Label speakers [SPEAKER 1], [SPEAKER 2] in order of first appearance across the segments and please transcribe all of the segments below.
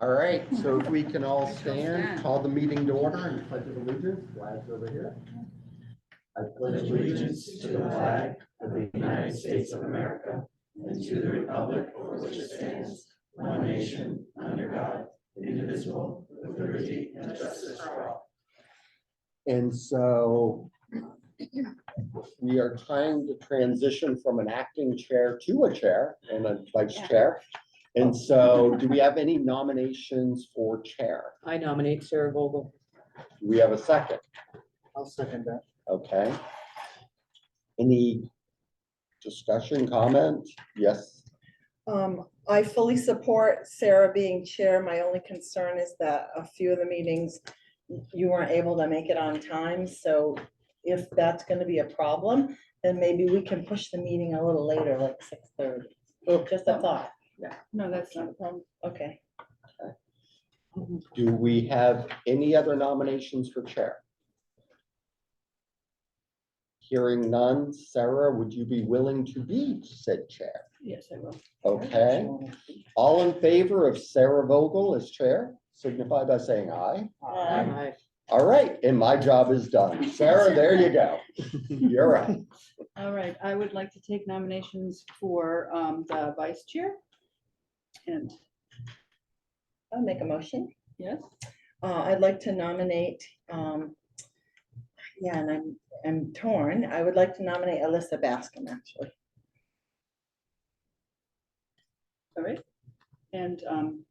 [SPEAKER 1] All right, so if we can all stand, call the meeting to order and pledge of allegiance, flags over here. I pledge
[SPEAKER 2] allegiance to the flag of the United States of America and to the republic for which it stands, one nation, under God, indivisible, with liberty and justice for all.
[SPEAKER 1] And so we are trying to transition from an acting chair to a chair and a vice chair. And so do we have any nominations for chair?
[SPEAKER 3] I nominate Sarah Vogel.
[SPEAKER 1] Do we have a second?
[SPEAKER 4] I'll second that.
[SPEAKER 1] Okay. Any discussion, comment? Yes,
[SPEAKER 5] Um, I fully support Sarah being chair. My only concern is that a few of the meetings, you weren't able to make it on time, so if that's gonna be a problem, then maybe we can push the meeting a little later, like six thirty. Oh, Just a thought.
[SPEAKER 6] No, that's not a problem.
[SPEAKER 5] Okay.
[SPEAKER 1] do we have any other nominations for chair? Hearing none, Sarah, would you be willing to be said chair?
[SPEAKER 3] Yes, I will.
[SPEAKER 1] Okay, all in favor of Sarah Vogel as chair, signify by saying aye.
[SPEAKER 3] Uh-huh.
[SPEAKER 5] Uh,
[SPEAKER 1] All right, and my job is done. Sarah, there you go. You're up.
[SPEAKER 6] All right, I would like to take nominations for um, the vice chair. And,
[SPEAKER 5] I'll make a motion.
[SPEAKER 6] yes,
[SPEAKER 5] Uh, I'd like to nominate, um, yeah, and I'm, I'm torn. I would like to nominate Alyssa Bascom, actually.
[SPEAKER 6] all right. And um,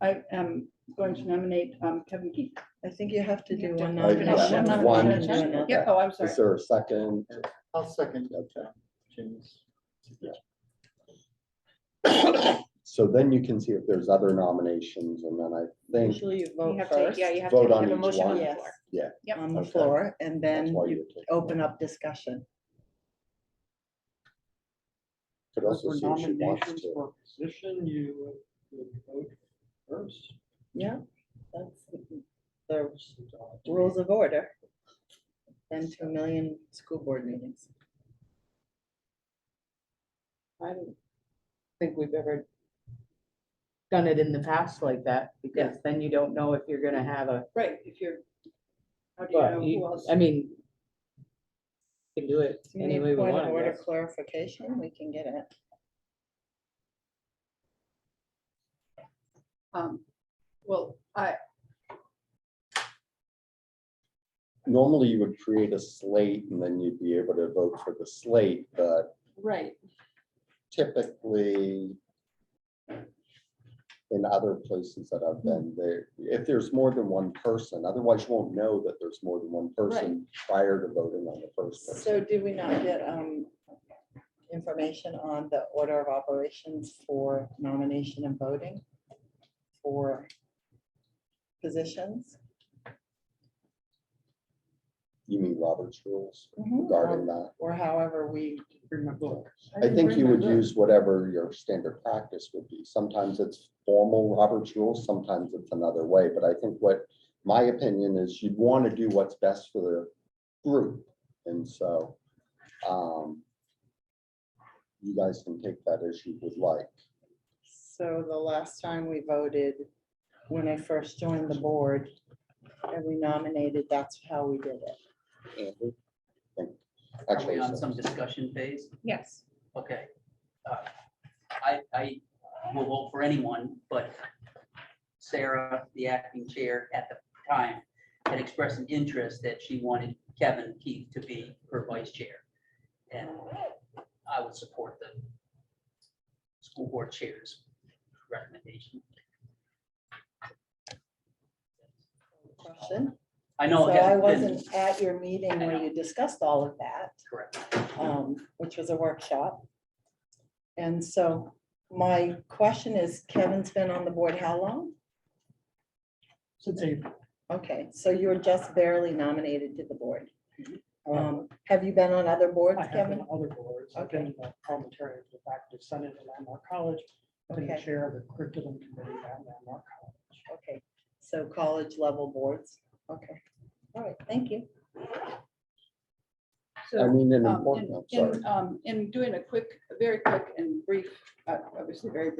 [SPEAKER 6] I am going to nominate um, Kevin Keith.
[SPEAKER 5] I think you have to do one
[SPEAKER 1] I-
[SPEAKER 5] nomination.
[SPEAKER 1] yeah,
[SPEAKER 5] and then
[SPEAKER 1] one.
[SPEAKER 5] do another.
[SPEAKER 6] Yeah, oh, I'm sorry.
[SPEAKER 1] Is there a second?
[SPEAKER 4] I'll second
[SPEAKER 1] Okay.
[SPEAKER 4] James.
[SPEAKER 1] So then you can see if there's other nominations, and then I think
[SPEAKER 5] Usually you
[SPEAKER 7] You
[SPEAKER 5] vote
[SPEAKER 7] have to,
[SPEAKER 5] first.
[SPEAKER 7] yeah, you have
[SPEAKER 1] Vote
[SPEAKER 7] to
[SPEAKER 1] on
[SPEAKER 7] have a
[SPEAKER 1] each
[SPEAKER 7] motion on
[SPEAKER 1] one.
[SPEAKER 7] the
[SPEAKER 5] Yes.
[SPEAKER 7] floor. Yep.
[SPEAKER 5] On the
[SPEAKER 1] Okay.
[SPEAKER 5] floor and
[SPEAKER 1] that's
[SPEAKER 5] then
[SPEAKER 1] why
[SPEAKER 5] you
[SPEAKER 1] you take-
[SPEAKER 5] open up discussion.
[SPEAKER 1] Could also see if she wants to.
[SPEAKER 4] for position, you would vote first.
[SPEAKER 5] Yeah. That's the rules of order. Then to a million school board meetings.
[SPEAKER 3] I don't think we've ever done it in the past like that, because then you don't know if you're gonna have a,
[SPEAKER 6] Right, if you're, how do you
[SPEAKER 3] but
[SPEAKER 6] know
[SPEAKER 3] you-
[SPEAKER 6] who else?
[SPEAKER 3] I mean, we can do it
[SPEAKER 5] Do you
[SPEAKER 3] any
[SPEAKER 5] need
[SPEAKER 3] way we
[SPEAKER 5] point of
[SPEAKER 3] want. I
[SPEAKER 5] order
[SPEAKER 3] guess.
[SPEAKER 5] clarification? We can get it.
[SPEAKER 6] Um, Well, I,
[SPEAKER 1] Normally, you would create a slate, and then you'd be able to vote for the slate, but
[SPEAKER 6] right,
[SPEAKER 1] typically in other places that I've been there, if there's more than one person, otherwise you won't know that there's more than one person prior to voting on the first person.
[SPEAKER 5] So did we not get um information on the order of operations for nomination and voting? For positions?
[SPEAKER 1] You mean Robert's rules
[SPEAKER 5] Um,
[SPEAKER 1] regarding that?
[SPEAKER 5] Or however we,
[SPEAKER 1] I think you would use whatever your standard practice would be. Sometimes it's formal Robert's rules, sometimes it's another way. But I think what my opinion is you'd want to do what's best for the group. And so um, you guys can take that as you would like.
[SPEAKER 5] so the last time we voted, when I first joined the board, and we nominated, that's how we did it.
[SPEAKER 1] Andrew? I think-
[SPEAKER 8] Are we
[SPEAKER 6] Oh,
[SPEAKER 1] Actually,
[SPEAKER 8] on some discussion phase?
[SPEAKER 7] Yes.
[SPEAKER 8] Okay. Uh, I, I will vote for anyone, but Sarah, the acting chair at the time, had expressed an interest that she wanted Kevin Keith to be her vice chair. And I would support the school board chair's recommendation.
[SPEAKER 5] Question.
[SPEAKER 8] I know.
[SPEAKER 5] So
[SPEAKER 8] it hasn't
[SPEAKER 5] I
[SPEAKER 8] been-
[SPEAKER 5] wasn't at your meeting
[SPEAKER 8] I
[SPEAKER 5] where
[SPEAKER 8] know.
[SPEAKER 5] you discussed all of that.
[SPEAKER 8] Correct.
[SPEAKER 5] um, which was a workshop. And so my question is, Kevin's been on the board how long?
[SPEAKER 4] Since April.
[SPEAKER 5] Okay, so you were just barely nominated to the board.
[SPEAKER 8] Mhm.
[SPEAKER 4] Uh,
[SPEAKER 5] Um, Have you been on other boards,
[SPEAKER 4] I have been
[SPEAKER 5] Kevin?
[SPEAKER 4] on other boards. I've been the parliamentarian for the faculty senate at Landmark College. I've been the
[SPEAKER 5] Okay.
[SPEAKER 4] chair of the curriculum committee at Landmark College.
[SPEAKER 5] Okay, so college level boards. Okay, all right, thank you.
[SPEAKER 6] so.
[SPEAKER 1] I mean, an
[SPEAKER 6] Um,
[SPEAKER 1] important,
[SPEAKER 6] in-
[SPEAKER 1] I'm sorry.
[SPEAKER 6] In, um, in doing a quick, very quick and brief, uh, obviously very